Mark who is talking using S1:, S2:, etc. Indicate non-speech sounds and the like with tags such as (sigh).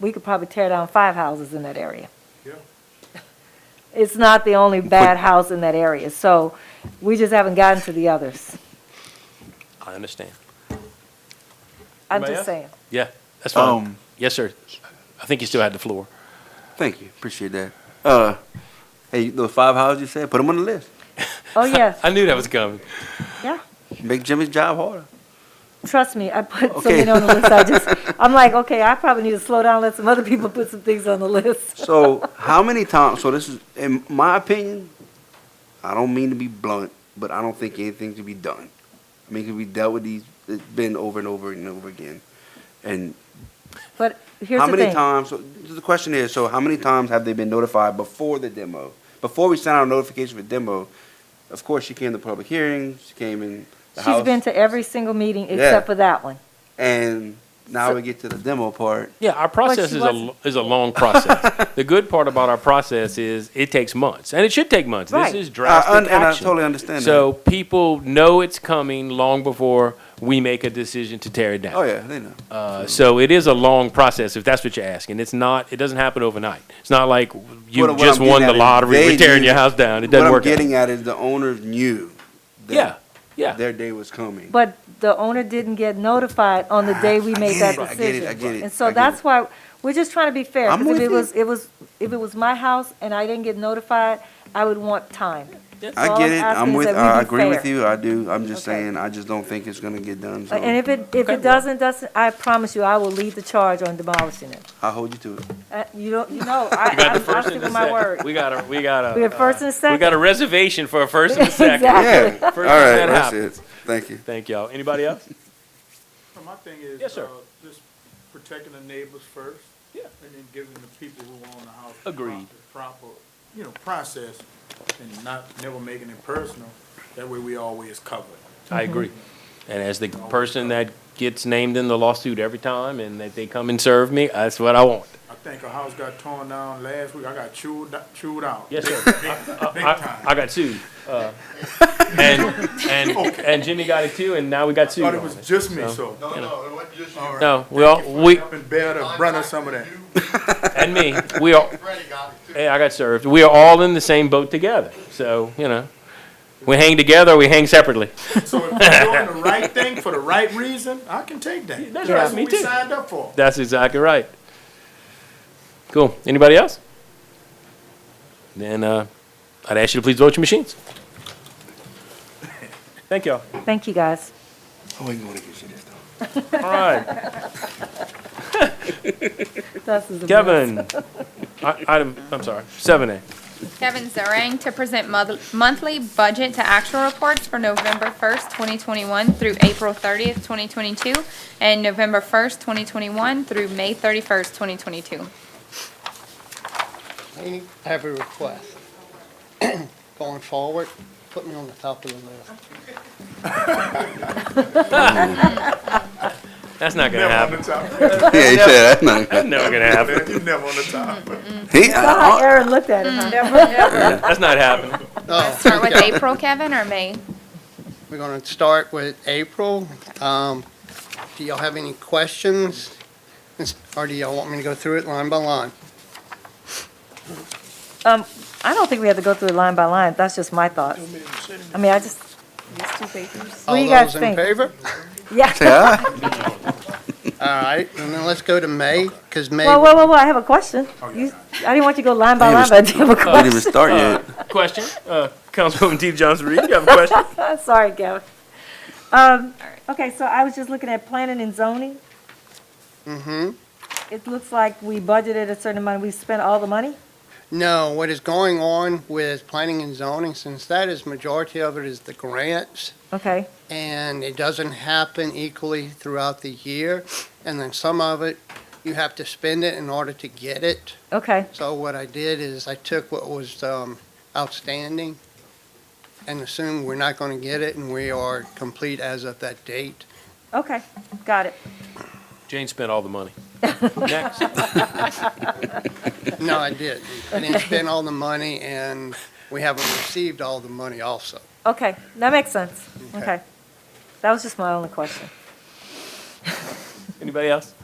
S1: we could probably tear down five houses in that area.
S2: Yeah.
S1: (laughs) It's not the only bad house in that area, so we just haven't gotten to the others.
S3: I understand.
S1: I'm
S2: May I?
S1: just saying.
S3: Yeah, that's fine.
S4: Um,
S3: Yes, sir. I think you still had the floor.
S4: Thank you. Appreciate that. Uh, hey, those five houses you said, put them on the list.
S1: Oh, yeah,
S3: I knew that was coming.
S1: yeah.
S4: Make Jimmy's job harder.
S1: Trust me, I put so
S4: Okay.
S1: many on the list, I just,
S4: (laughs)
S1: I'm like, okay, I probably need to slow down, let some other people put some things on the list.
S4: So how many times? So this is, in my opinion, I don't mean to be blunt, but I don't think anything should be done. I mean, 'cause we dealt with these, it's been over and over and over again. And
S1: But here's
S4: how
S1: the
S4: many
S1: thing.
S4: times? So the question is, so how many times have they been notified before the demo? Before we sent out a notification for demo, of course she came to public hearings. She came in. The
S1: She's
S4: house,
S1: been to every single meeting
S4: Yeah.
S1: except for that one.
S4: and now
S1: So-
S4: we get to the demo part.
S3: Yeah, our process
S1: she
S3: is a,
S1: wasn't-
S3: is a long (laughs) process. The good part about our process is it takes months, and it should take months. This
S1: Right.
S3: is
S4: I un-
S3: drastic
S4: and I
S3: action.
S4: totally understand
S3: So people know it's coming long before we make a decision to tear it down.
S4: Oh yeah, they know.
S3: Uh, so it is a long process, if that's what you're asking. It's not, it doesn't happen overnight. It's not like you
S4: What- what
S3: just
S4: I'm
S3: won
S4: getting
S3: the
S4: at is
S3: lottery,
S4: they
S3: we're tearing
S4: knew-
S3: your house down. It doesn't
S4: what
S3: work.
S4: I'm
S3: out.
S4: getting at is the owners knew. That
S3: Yeah, yeah.
S4: Their day was coming.
S1: But the owner didn't get notified on the day we
S4: Ah, I
S1: made
S4: get
S1: that
S4: it, I
S1: decision.
S4: get it, I get it,
S1: And
S4: I
S1: so
S4: get
S1: that's
S4: it.
S1: why, we're just trying to be fair.
S4: I'm
S1: 'cause if
S4: with
S1: it
S4: you.
S1: was, it was, if it was my house and I didn't get notified, I would want time.
S4: I
S1: all
S4: get
S1: I'm
S4: it.
S1: asking
S4: I'm
S1: is
S4: with.
S1: that we
S4: I
S1: be
S4: agree with
S1: fair.
S4: you. I do. I'm just
S1: Okay.
S4: saying. I just don't think it's gonna get done. So
S1: And if it, if
S3: Okay, well-
S1: it doesn't, doesn't, I promise you, I will lead the charge on demolishing it.
S4: I'll hold you to
S1: (laughs)
S4: it.
S1: Uh, You don't, you know, I,
S3: got the
S1: I'm- I
S3: first
S1: stick
S3: and the
S1: with my
S3: second.
S1: word.
S3: We got a, we uh, got a.
S1: We have first and a
S3: We got a
S1: second.
S3: reservation for a first and a second.
S1: (laughs) Exactly.
S4: Yeah.
S1: First
S4: All
S3: thing
S4: right.
S3: that
S4: That's it.
S3: happens.
S4: Thank you. (laughs)
S3: Thank y'all. Anybody else?
S2: So my thing is,
S3: Yes, sir.
S2: uh, just protecting the neighbors first.
S3: Yeah.
S2: And then giving the people who own the house. the
S3: Agreed.
S2: Proper, proper, you know, process and not, never making it personal. That way we always covered.
S3: I agree. And as the person that gets named in the lawsuit every time and that they come and serve me, that's what I want.
S2: I think a house got torn down last week. I got chewed, chewed out.
S3: Yes,
S2: Big-
S3: sir.
S2: Big big
S3: (laughs) I,
S2: time.
S3: I got sued. uh, And, and, and Jimmy got it too, and now we got sued
S2: Thought
S3: on
S2: it was
S3: it.
S2: just me, so.
S5: No, Oh, no, it wasn't just you.
S3: No, we all, we,
S2: Been bear the brunt of some of that.
S3: and me, we are,
S5: Freddie got it too.
S3: hey, I got served. We are all in the same boat together. So, you know, we hang together, we hang separately.
S2: So if you're doing the right thing for the right reason, I can take that.
S3: That's right,
S2: That's
S3: me
S2: what
S3: too.
S2: we signed up for.
S3: That's exactly right. Cool. Anybody else? Then uh, I'd ask you to please vote your machines. Thank y'all.
S1: Thank you, guys.
S4: Oh, I ain't gonna get you this though.
S3: All right,
S1: This is a
S3: Kevin. I, item, I'm sorry. Seven A.
S6: Kevin Zarang to present moth- monthly budget to actual reports for November 1st, 2021 through April 30th, 2022, and November 1st, 2021 through May 31st, 2022.
S7: Laney, I have a request. (clears throat) Going forward, put me on the top of the list.
S3: That's not gonna
S2: Never
S3: happen.
S2: on the top. (laughs)
S4: Yeah, he said that's not.
S3: That's never gonna happen.
S2: You never on the top.
S4: He, uh,
S1: How
S4: (laughs) I,
S1: Aaron looked at him.
S3: That's not happening.
S7: Oh,
S6: Start with
S7: okay.
S6: April, Kevin, or May?
S7: We're gonna start with April. Um, do y'all have any questions? Is- Or do y'all want me to go through it line by line?
S1: Um, I don't think we have to go through it line by line. That's just my thoughts. I mean, I just, What do you guys
S7: All
S1: think?
S7: those in favor?
S1: yeah.
S7: All right, and then let's go to May, because May,
S1: Well, well, well, I have a question. You- I didn't want you to go line by
S4: They
S1: line,
S4: was-
S1: but I do have a
S4: I didn't even
S1: question.
S4: start yet.
S3: Question, uh, Councilwoman Dee Johnson Reed, you have a question?
S1: (laughs) Sorry, Gavin. Um, okay, so I was just looking at planning and zoning.
S7: Mhm.
S1: It looks like we budgeted a certain amount, we spent all the money?
S7: no, what is going on with planning and zoning, since that is, majority of it is the grants,
S1: Okay,
S7: and it doesn't happen equally throughout the year. And then some of it, you have to spend it in order to get it.
S1: okay,
S7: So what I did is I took what was um, outstanding and assumed we're not going to get it and we are complete as of that date.
S1: okay, got it.
S3: Jane spent all the money. Next.
S7: No, I didn't. I didn't spend all the money and we haven't received all the money also.
S1: Okay, that makes sense.
S7: Okay.
S1: Okay. That was just my only question.
S3: Anybody else?